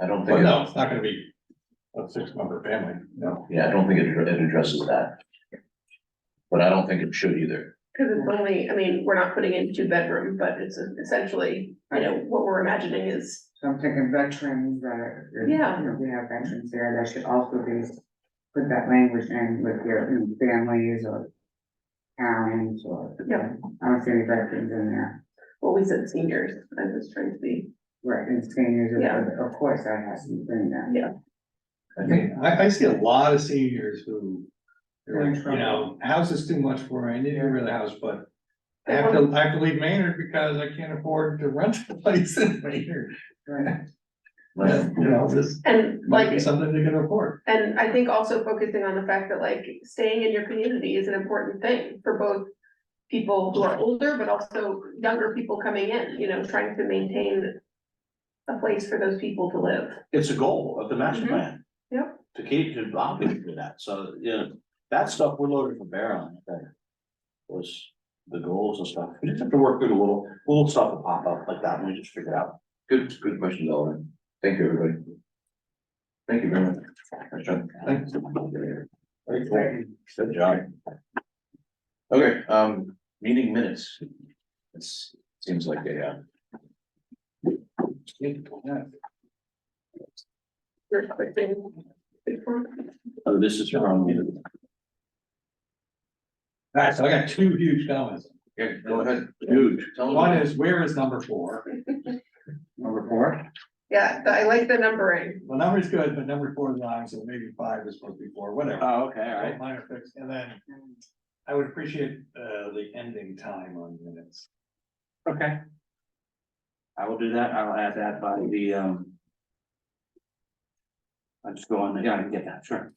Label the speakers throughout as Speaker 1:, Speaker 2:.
Speaker 1: I don't
Speaker 2: But
Speaker 1: think,
Speaker 2: no,
Speaker 1: it-
Speaker 2: it's not gonna be a six member family, no.
Speaker 1: yeah, I don't think it it addresses that. But I don't think it should either.
Speaker 3: Cause it's only, I mean, we're not putting in two bedroom, but it's essentially, you know, what we're imagining is,
Speaker 4: So I'm thinking veterans that, you
Speaker 3: Yeah.
Speaker 4: know, we have veterans there that should also be, put that language in with their you know, families or parents or.
Speaker 3: Yeah.
Speaker 4: I don't see any veterans in there,
Speaker 3: well, we said seniors, I was trying to be.
Speaker 4: right, and seniors, of-
Speaker 3: Yeah.
Speaker 4: of course, that has to be in there.
Speaker 2: I think, I, I see a lot of seniors who,
Speaker 4: They're in
Speaker 2: you know, house is too much for me, I need to rent a house, but I have to, I have to leave Maynard because I can't afford to rent a place in Maynard,
Speaker 4: Right.
Speaker 1: Right.
Speaker 2: you know, this
Speaker 3: And
Speaker 2: might be
Speaker 3: like,
Speaker 2: something they can afford.
Speaker 3: and I think also focusing on the fact that like staying in your community is an important thing for both. People who are older, but also younger people coming in, you know, trying to maintain. A place for those people to live.
Speaker 5: It's a goal of the master
Speaker 3: Mhm.
Speaker 5: plan.
Speaker 3: Yep.
Speaker 5: To keep, to obviously do that, so, you know, that stuff we're loaded for bear on, I think. Was the goals and stuff, we just have to work through the little, little stuff will pop up like that, and we just figure it out.
Speaker 1: Good, good question, Alvin. Thank you, everybody. Thank you very much. Nice job.
Speaker 2: Thanks.
Speaker 5: Very cool. Good job.
Speaker 1: Okay, um, meeting minutes. It's, seems like a, uh,
Speaker 3: Your quick thing.
Speaker 5: Oh, this is from,
Speaker 2: Alright, so I got two huge comments,
Speaker 1: yeah, go ahead.
Speaker 5: dude,
Speaker 1: Tell them.
Speaker 2: one is, where is number four?
Speaker 4: Number four?
Speaker 3: Yeah, I like the numbering.
Speaker 2: Well, number's good, but number four is wrong, so maybe five is supposed to be four, whatever.
Speaker 5: oh, okay, all right.
Speaker 2: Right, minor fix, and then I would appreciate uh the ending time on minutes.
Speaker 5: Okay. I will do that, I'll add that by the, um. I'll just go on, yeah, I can get that, sure.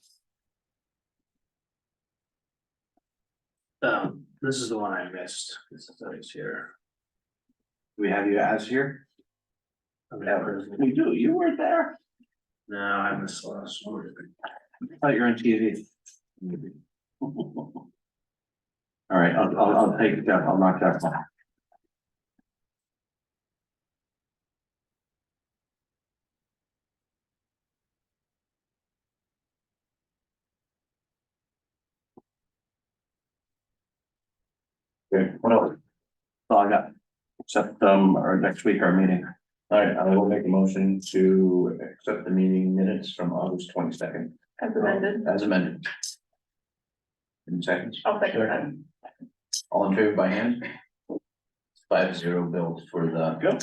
Speaker 5: Um, this is the one I missed, this is always here. Do We have you as here? We do, you weren't there? No, I missed last one. I thought you were on TV. All right, I'll, I'll, I'll take it down, I'll knock that one.
Speaker 1: Okay, What else?
Speaker 5: All I got, except, um, our next week, our meeting.
Speaker 1: All right, I will make a motion to accept the meeting minutes from August twenty-second
Speaker 3: As amended,
Speaker 1: as amended. In seconds,
Speaker 3: I'll second that.
Speaker 1: all in favor by hand? Five zero bills for the.
Speaker 5: Go.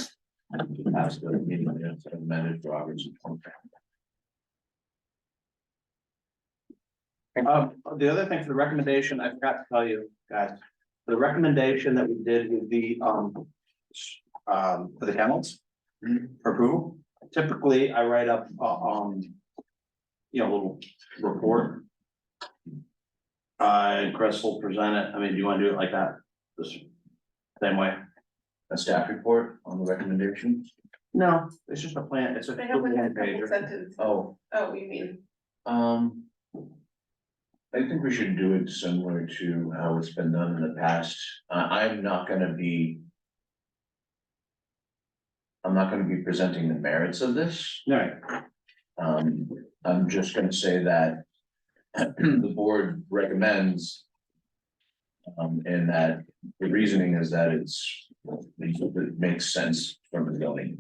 Speaker 1: As the meeting minutes amended for August twenty-second.
Speaker 5: Um, the other thing for the recommendation, I forgot to tell you guys, the recommendation that we did with the, um, s- um, for the kennels. For approval, typically I write up, uh, um, you know, a little report. Uh, and Chris will present it. I mean, do you want to do it like that? This same way?
Speaker 1: A staff report on the recommendation.
Speaker 5: No. It's just a plan, it's a.
Speaker 3: They have like a
Speaker 5: one
Speaker 3: couple
Speaker 5: pager.
Speaker 3: sentences.
Speaker 1: Oh,
Speaker 3: Oh, you mean,
Speaker 1: Um. I think we should do it similar to how it's been done in the past. I, I'm not gonna be. I'm not gonna be presenting the merits of this.
Speaker 5: All right,
Speaker 1: Um, I'm just gonna say that. The board recommends. Um, and that the reasoning is that it's, it makes sense from the building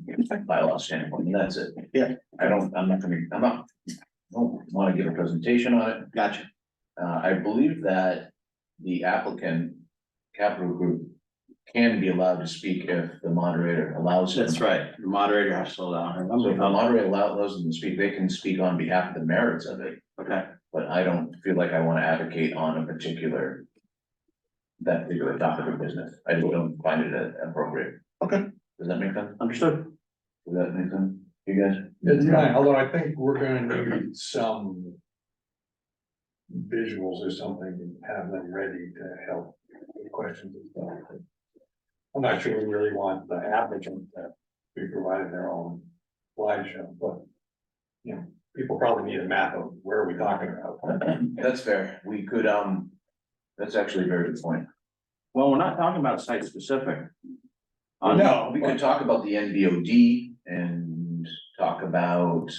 Speaker 1: bylaw standpoint, and that's it.
Speaker 5: Yeah.
Speaker 1: I don't, I'm not gonna, I'm not, I don't wanna give a presentation on it.
Speaker 5: gotcha.
Speaker 1: Uh, I believe that the applicant, Capital Group, can be allowed to speak if the moderator allows them.
Speaker 5: That's right. The moderator has to slow down. I
Speaker 1: So if the
Speaker 5: remember.
Speaker 1: moderator allow- allows them to speak, they can speak on behalf of the merits of it,
Speaker 5: Okay,
Speaker 1: but I don't feel like I wanna advocate on a particular. That particular topic of business, I just don't find it uh, appropriate.
Speaker 5: Okay.
Speaker 1: Does that make sense?
Speaker 5: understood.
Speaker 1: Does that make sense, you guys?
Speaker 2: It's fine, although I think we're gonna need some. Visuals or something and have them ready to help with questions and stuff. I'm not sure we really want the applicant to be providing their own slideshow, but. You know, people probably need a map of where are we talking about.
Speaker 1: That's fair, we could, um, that's actually a very good point.
Speaker 5: Well, we're not talking about site specific.
Speaker 1: Uh,
Speaker 2: No,
Speaker 1: We
Speaker 2: but-
Speaker 1: could talk about the NBOD and talk about